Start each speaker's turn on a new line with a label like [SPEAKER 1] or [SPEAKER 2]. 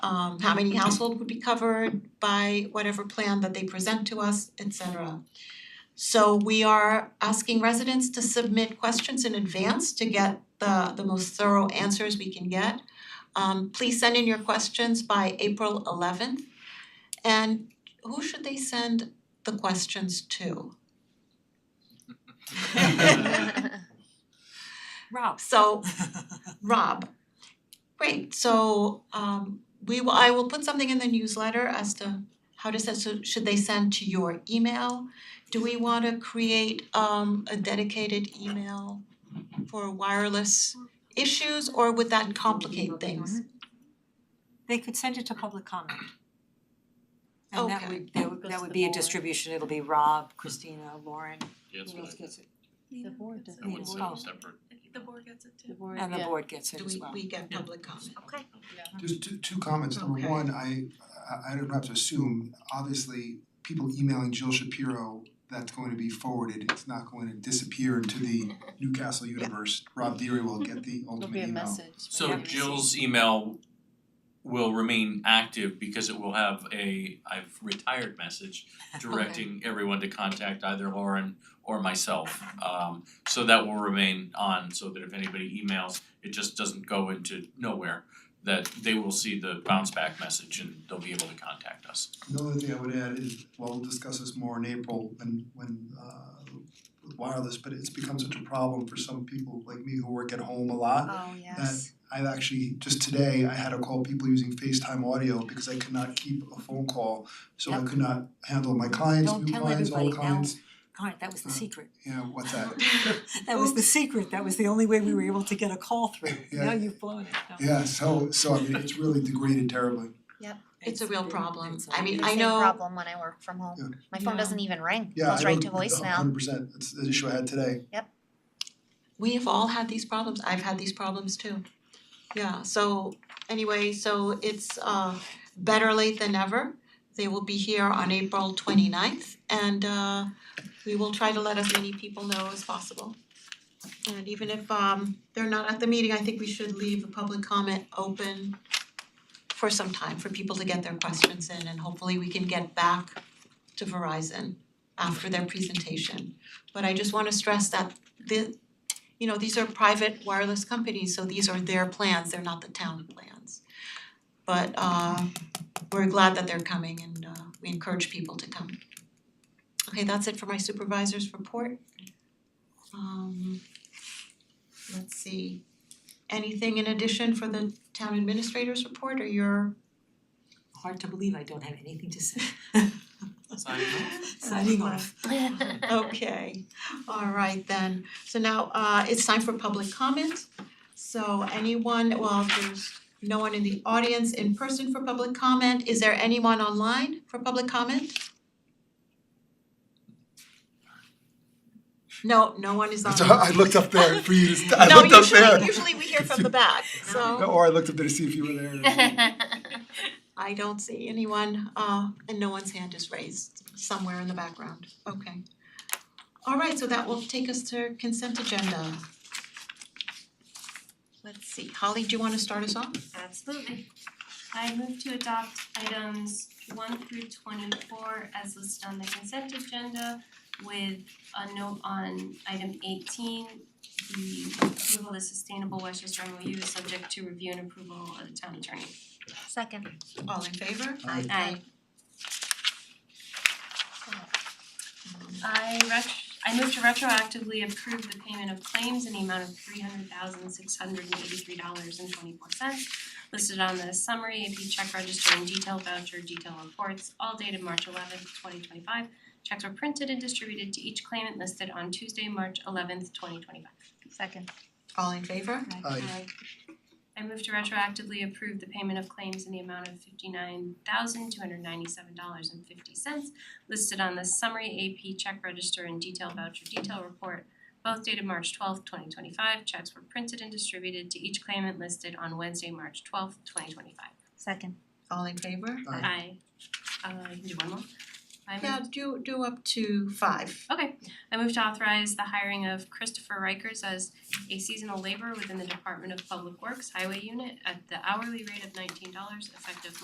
[SPEAKER 1] um how many household would be covered by whatever plan that they present to us, et cetera. So we are asking residents to submit questions in advance to get the the most thorough answers we can get. Um please send in your questions by April eleventh. And who should they send the questions to?
[SPEAKER 2] Rob.
[SPEAKER 1] So, Rob, great, so um we will, I will put something in the newsletter as to how to send, so should they send to your email? Do we wanna create um a dedicated email for wireless issues or would that complicate things?
[SPEAKER 2] They could send it to public comment. And that
[SPEAKER 1] Okay.
[SPEAKER 2] would, that would, that would be a distribution, it'll be Rob, Christina, Lauren,
[SPEAKER 3] Yeah, that's
[SPEAKER 2] who
[SPEAKER 3] what
[SPEAKER 2] else
[SPEAKER 3] I,
[SPEAKER 2] gets it?
[SPEAKER 4] The board does
[SPEAKER 3] I would
[SPEAKER 2] Yeah.
[SPEAKER 3] say
[SPEAKER 2] Oh.
[SPEAKER 3] separate.
[SPEAKER 4] The board gets it too.
[SPEAKER 2] And the board gets it
[SPEAKER 1] Do
[SPEAKER 2] as
[SPEAKER 1] we
[SPEAKER 2] well.
[SPEAKER 1] we get
[SPEAKER 3] Yeah.
[SPEAKER 1] public comment?
[SPEAKER 4] Okay.
[SPEAKER 5] Just two two comments, number
[SPEAKER 1] Okay.
[SPEAKER 5] one, I I I don't have to assume, obviously, people emailing Jill Shapiro, that's going to be forwarded, it's not going to disappear into the Newcastle universe. Rob Deary will get the
[SPEAKER 4] There'll
[SPEAKER 5] ultimate
[SPEAKER 4] be a
[SPEAKER 5] email.
[SPEAKER 4] message.
[SPEAKER 3] So Jill's email will remain active because it will have a I've retired message directing everyone to contact either Lauren or myself. Um so that will remain on so that if anybody emails, it just doesn't go into nowhere. That they will see the bounce back message and they'll be able to contact us.
[SPEAKER 5] Another thing I would add is, well, we'll discuss this more in April when when uh with wireless, but it's become such a problem for some people like me who work at home a lot.
[SPEAKER 4] Oh, yes.
[SPEAKER 5] I've actually, just today, I had to call people using FaceTime audio because I could not keep a phone call. So I
[SPEAKER 2] Yep.
[SPEAKER 5] could not handle my clients,
[SPEAKER 2] Don't
[SPEAKER 5] new
[SPEAKER 2] tell
[SPEAKER 5] clients, old
[SPEAKER 2] everybody now.
[SPEAKER 5] clients,
[SPEAKER 2] Alright, that was the secret.
[SPEAKER 5] you know, what's that?
[SPEAKER 2] That was the secret, that was the only way we were able to get a call through.
[SPEAKER 5] Yeah.
[SPEAKER 2] Now you've blown it. No.
[SPEAKER 5] Yeah, so so I mean, it's really degraded terribly.
[SPEAKER 1] It's a real problem.
[SPEAKER 2] it's a-
[SPEAKER 1] I mean,
[SPEAKER 6] the
[SPEAKER 1] I
[SPEAKER 6] same
[SPEAKER 1] know.
[SPEAKER 6] problem when I work from
[SPEAKER 5] Yeah.
[SPEAKER 6] home. My phone
[SPEAKER 1] Yeah.
[SPEAKER 6] doesn't even ring.
[SPEAKER 5] Yeah,
[SPEAKER 6] Goes
[SPEAKER 5] I
[SPEAKER 6] right
[SPEAKER 5] don't-
[SPEAKER 6] to voicemail.
[SPEAKER 5] hundred percent, that's an issue I had today.
[SPEAKER 1] we have all had these problems, I've had these problems too. Yeah, so anyway, so it's uh better late than never. They will be here on April twenty ninth and uh we will try to let as many people know as possible. And even if um they're not at the meeting, I think we should leave the public comment open for some time for people to get their questions in and hopefully we can get back to Verizon after their presentation. But I just wanna stress that the you know, these are private wireless companies, so these are their plans, they're not the town plans. But uh we're glad that they're coming and uh we encourage people to come. Okay, that's it for my supervisor's report. Um let's see, anything in addition for the town administrator's report or your
[SPEAKER 2] Hard to believe I don't have anything to say.
[SPEAKER 3] Signing off.
[SPEAKER 2] Signing off.
[SPEAKER 1] Okay, all right then. So now uh it's time for public comment. So anyone, well, there's no one in the audience in person for public comment. Is there anyone online for public comment? No, no one is
[SPEAKER 5] That's-
[SPEAKER 1] online.
[SPEAKER 5] I looked up there for you, to st- I looked up
[SPEAKER 1] No,
[SPEAKER 5] there.
[SPEAKER 1] usually usually we hear from the back, so.
[SPEAKER 5] Or Oh, I looked up there to see if you were there.
[SPEAKER 1] I don't see anyone, uh, and no one's hand is raised somewhere in the background, okay. All right, so that will take us to consent agenda. Let's see, Holly, do you wanna start us off?
[SPEAKER 7] Absolutely. I move to adopt items one through twenty-four as listed on the consent agenda with a note on item eighteen. The approval of the Sustainable Westchester MOU is subject to review and approval of the town attorney.
[SPEAKER 6] Second.
[SPEAKER 1] All in favor?
[SPEAKER 5] Aye.
[SPEAKER 7] Aye. I ret- I move to retroactively approve the payment of claims in the amount of three hundred thousand six hundred and eighty-three dollars and twenty-four cents listed on the summary AP check register and detail voucher detail reports, all dated March eleventh, twenty twenty-five. Checks were printed and distributed to each claimant listed on Tuesday, March eleventh, twenty twenty-five.
[SPEAKER 6] Second.
[SPEAKER 1] All in favor?
[SPEAKER 5] Aye.
[SPEAKER 7] I move to retroactively approve the payment of claims in the amount of fifty-nine thousand two hundred ninety-seven dollars and fifty cents listed on the summary AP check register and detail voucher detail report, both dated March twelfth, twenty twenty-five. Checks were printed and distributed to each claimant listed on Wednesday, March twelfth, twenty twenty-five.
[SPEAKER 6] Second.
[SPEAKER 1] All in favor?
[SPEAKER 5] Aye.
[SPEAKER 7] I, uh, you can do one more. I move
[SPEAKER 1] Yeah, do do up to five.
[SPEAKER 7] Okay, I move to authorize the hiring of Christopher Rikers as a seasonal laborer within the Department of Public Works Highway Unit at the hourly rate of nineteen dollars effective